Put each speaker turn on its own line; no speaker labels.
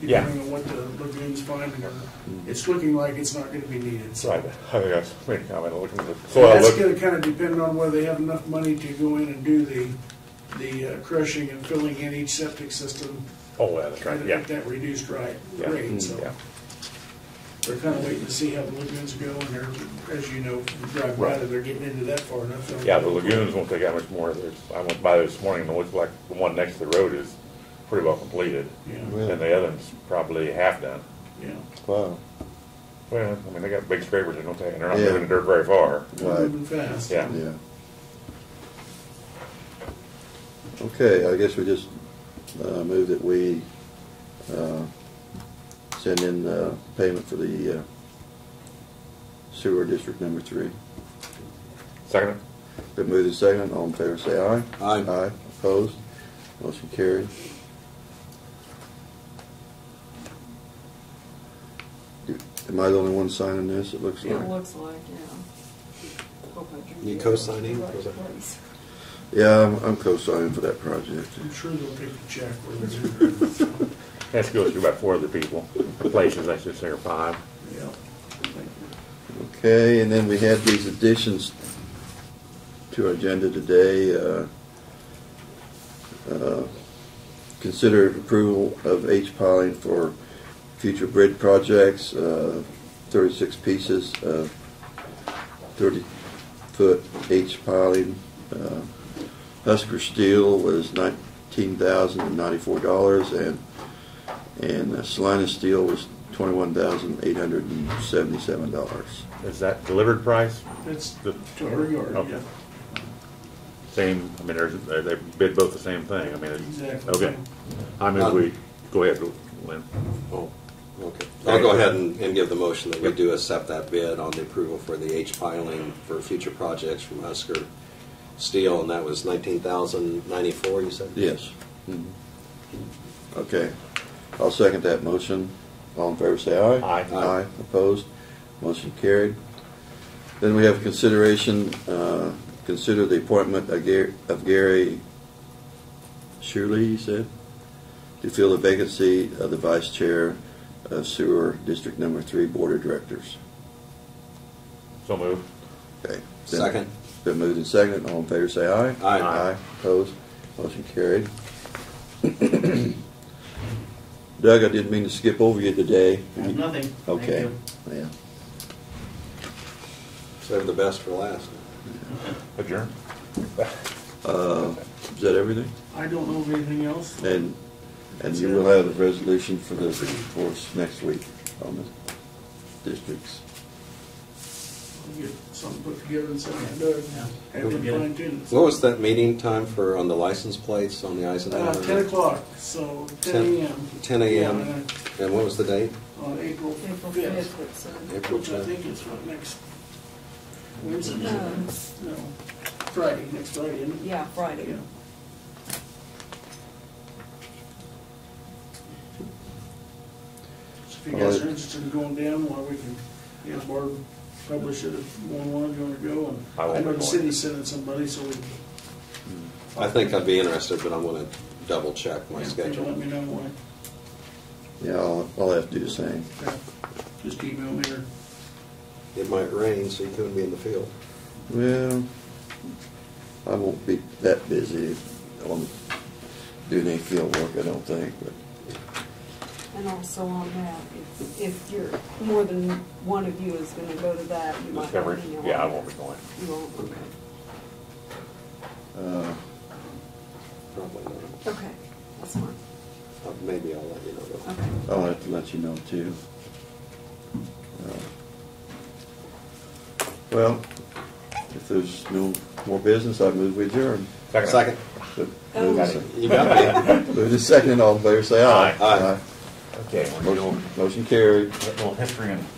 Yeah.
depending on what the lagoons find, and it's looking like it's not gonna be needed. So
Right, I think I was making a comment, looking at the soil,
That's
look,
gonna kinda depend on whether they have enough money to go in and do the, the uh, crushing and filling in each septic system,
oh, that's
try
right,
to
yeah.
get that reduced right,
yeah, mm,
rate, so.
yeah.
They're kinda waiting to see how the lagoons go, and they're, as you know, from driving by,
Right.
that they're getting into that far enough. so-
Yeah, the lagoons won't take that much more, there's, I went by this morning, and it looks like the one next to the road is pretty well completed.
Yeah,
Really?
And the other one's probably half done.
yeah.
Wow.
Well, I mean, they got big scrapers, they don't take, and they're not
Yeah.
moving the dirt very far.
They're
Right.
Moving fast.
Yeah.
Yeah. Okay, I guess we just uh, move that we uh, send in uh, payment for the uh, sewer district number three.
Second,
Been moved and seconded, all in favor say aye.
Aye.
Aye, opposed, motion carried. Do- Am I the only one signing this, it looks
It
like?
looks like, yeah. Hope I drew
You
the
co-signing?
right place.
Yeah, I'm- I'm co-signing for that project.
I'm sure they'll take the check where it's at.
this goes to about four other people, or places, I should say, or five.
Yeah.
Okay, and then we had these additions to our agenda today. uh, uh, Consider approval of H piling for future bridge projects, uh, 36 pieces of 30-foot H piling. Uh, Husker steel was $19,094, and and uh, Salina steel was $21,877.
Is that delivered price?
That's
The-
to her yard,
Okay.
yeah.
Same, I mean, there's, they they bid both the same thing, I mean, it's,
Exactly.
okay. I mean, we, go ahead, Lynn.
Oh, okay. I'll go ahead and, and give the motion that we do accept that bid on the approval for the H piling for future projects from Husker Steel, and that was nineteen thousand ninety-four, you said?
Yes. Okay. I'll second that motion. All in favor, say aye.
Aye.
Aye. Opposed? Motion carried. Then we have consideration, uh, consider the appointment of Gar- of Gary Shirley, you said, to fill the vacancy of the vice chair of sewer District Number Three Board of Directors.
So moved.
Okay.
Second.
Been moved and seconded. All in favor, say aye.
Aye.
Aye. Opposed? Motion carried. Doug, I didn't mean to skip over you today.
Nothing. Thank
Okay.
you.
Yeah.
Save the best for last.
Adjourn.
Uh, Is that everything?
I don't know of anything else.
And, and you will have a resolution for the, for us next week on the districts.
I'll Get something put together and send it to Doug.
Yeah.
Have
We'll
it
get it.
fine tuned.
What was that meeting time for, on the license plates on the
Uh,
Eisenhower?
ten o'clock, so ten
Ten-
AM.
10 a.m. And what was the date?
On April
April
fifth,
fifth, it's, uh,
April
which I
10th.
think is what, next Wednesday?
No.
No, Friday, next Friday, isn't it?
yeah, Friday.
Yeah. So If you guys are interested in going down, well, we can, you know, board publish it if one, one, you wanna go, and
I won't
I know
be
the
going.
city sent it somebody, so we.
I think I'd be interested, but I'm gonna double check my
if they Let
schedule.
me know when,
Yeah, I'll, I'll have to do the same.
Okay. just email me or,
It might rain, so you couldn't be in the field.
Well, I won't be that busy on doing any field work, I don't think, but.
And also on that, if, if you're, more than one of you is gonna go to that, you might. not
Discovery,
be on
yeah, I
that.
won't be going.
You won't, okay.
Uh,
Probably not.
Okay, that's fine,
Uh, Maybe I'll let you know. though.
okay.
I'll have to let you know too. Uh, Well, if there's no more business, I move we adjourn.
Second.
But
Oh.
Move to-
You got me.
move to second, all in favor, say aye.
Aye.
Okay, we're doing,
Motion- Motion carried.
little history and